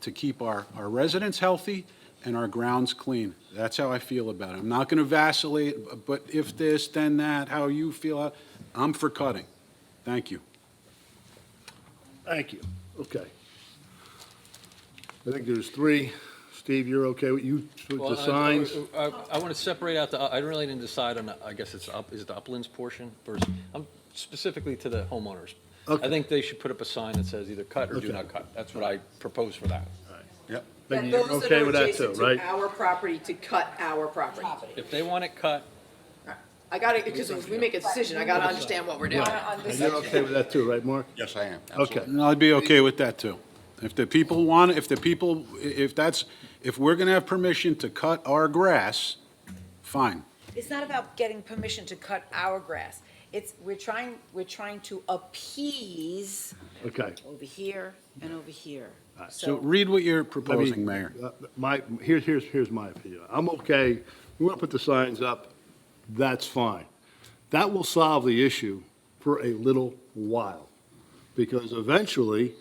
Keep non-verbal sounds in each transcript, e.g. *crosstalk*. to keep our, our residents healthy and our grounds clean. That's how I feel about it. I'm not going to vacillate, but if this, then that, how you feel, I'm for cutting. Thank you. Thank you. Okay. I think there's three. Steve, you're okay with you, with Well, uh, the I- signs? I want to separate out the, I really didn't decide on, the- I guess it's up, is it the uplands portion versus, I'm specifically to the homeowners. Okay. I think they should put up a sign that says either cut or do Okay. not cut. That's what I propose for that. Yep. Maybe That you're those that okay are with that too, adjacent to right? Our property to cut our property. If they want it cut, I gotta, because if we make a decision, I gotta understand what we're doing. And you're okay with that too, right, Mark? Yes, I am. Okay. And I'd be okay with that, too. If the people want, if the people, i- if that's, if we're going to have permission to cut our grass, fine. It's not about getting permission to cut our grass. It's, we're trying, we're trying to appease Okay. over here and over here. So read what you're I mean, proposing, Mayor. uh, My, here's, here's, here's my opinion. I'm okay, we want to put the signs up, that's fine. That will solve the issue for a little while, because eventually,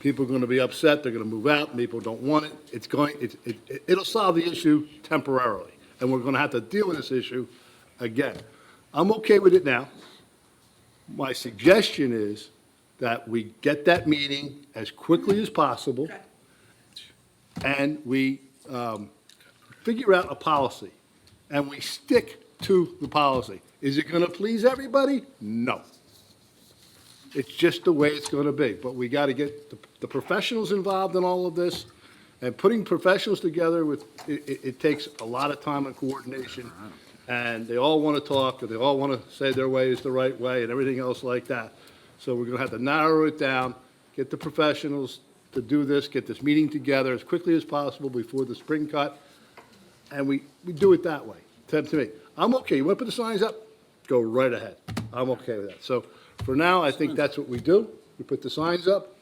people are going to be upset, they're going to move out, people don't want it, it's going, it, it, it'll solve the issue temporarily, and we're going to have to deal with this issue again. I'm okay with it now. My suggestion is that we get that meeting as quickly as possible and we um, figure out a policy, and we stick to the policy. Is it going to please everybody? No. It's just the way it's going to be, but we got to get the- the professionals involved in all of this, and putting professionals together with, it, it- it takes a lot of time and coordination, and they all want to talk, and they all want to say their way is the right way and everything else like that. So we're going to have to narrow it down, get the professionals to do this, get this meeting together as quickly as possible before the spring cut, and we, we do it that way, to, to me. I'm okay, you want to put the signs up? Go right ahead. I'm okay with that. So for now, I think that's what we do. We put the signs up.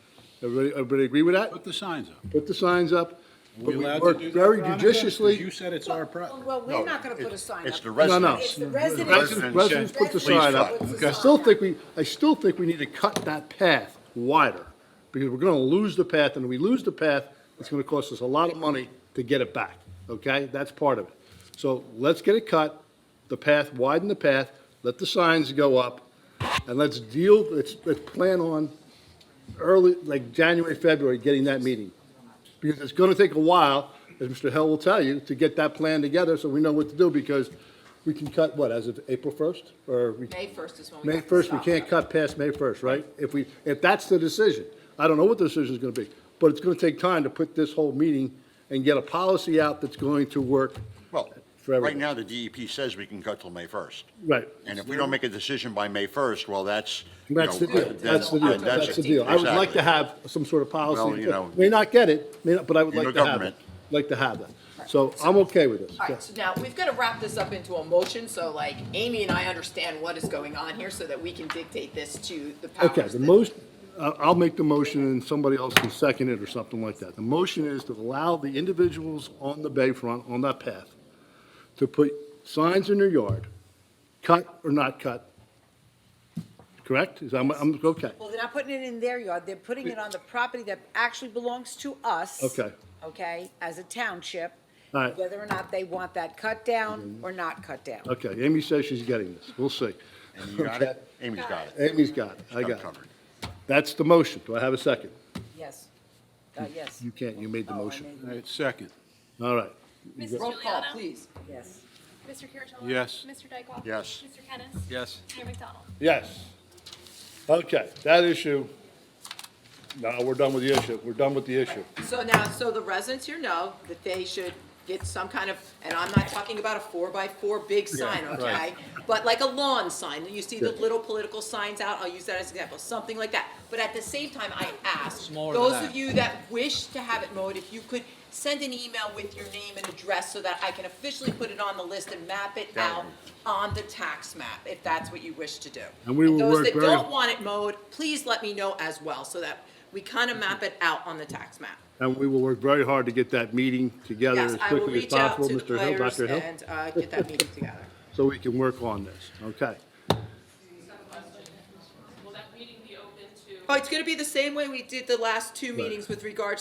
Everybody, everybody agree with that? Put the signs up. Put the signs up. But We we allowed to work do that, very Veronica? 'Cause You judiciously. said it's our pro, Well, we're not gonna put a sign up. It's the No, no. residents. It's the Residents residents. residents put the Please sign up. put the I sign still up. think we, I still think we need to cut that path wider because we're going to lose the path. And if we lose the path, it's going to cost us a lot of money to get it back. Okay? That's part of it. So let's get it cut, the path, widen the path, let the signs go up, and let's deal, let's, let's plan on early, like January, February, getting that meeting. Because it's going to take a while, as Mr. Hill will tell you, to get that plan together so we know what to do because we can cut, what, as of April 1st? Or we? May 1st is when we May have to 1st, we stop. can't cut past May 1st, right? If we, if that's the decision, I don't know what the decision is going to be, but it's going to take time to put this whole meeting and get a policy out that's going to work. Well, for right everyone. now, the DEP says we can cut till May 1st. Right. And if we don't make a decision by May 1st, well, that's, you know. That's the deal, then- that's the deal, then that's the it. deal. I would like Exactly. to have some sort of Well, policy, you know, may not get it, may not, but I would you're like the to have it, government. like to have that. So I'm okay with this. All right, so now, we've gotta wrap this up into a motion, so like, Amy and I understand what is going on here, so that we can dictate this to the powers Okay, the that- most, I- I'll make the motion and somebody else can second it or something like that. The motion is to allow the individuals on the bayfront, on that path, to put signs in their yard, cut or not cut. Correct? Is, I'm, I'm, okay. Well, they're not putting it in their yard, they're putting it on the property that actually belongs to us. Okay. Okay, as a township. All right. Mm-hmm. Whether or not they want that cut down or not cut down. Okay, Amy says she's getting this. We'll see. And you got it? Amy's got it. Amy's got it. I I'm got it. covered. That's the motion. Do I have a second? Yes, uh, yes, You can't, you made the Oh, I motion. All right, second. All right. Mrs. Roll call, Juliana. please. yes. Mr. Curatolo? Yes. Mr. Dykoff? Yes. Mr. Kennis? yes. Mayor McDonald? Yes. Okay, that issue, no, we're done with the issue. We're done with the issue. So now, so the residents here know that they should get some kind of, and I'm not talking about a four-by-four big sign, okay? But like a lawn sign, you see the Yeah. little political signs out, I'll use that as an example, something like that. But at the same time, I ask, Smaller than those of that. you that wish to have it mowed, if you could send an email with your name and address so that I can officially put it on the list and map it out on the tax map, if that's what you wish to do. And we will work Those that very- don't want it mowed, please let me know as well, so that we kind of map it out on the tax map. And we will work very hard to get that meeting together as Yes, I will quickly as reach out possible, to the Mr. Hill, players Dr. Hill, and uh, get that meeting *laughs* together. so we can work on this, okay? Will that meeting be open to? Oh, it's gonna be the same way we did the last two meetings with regards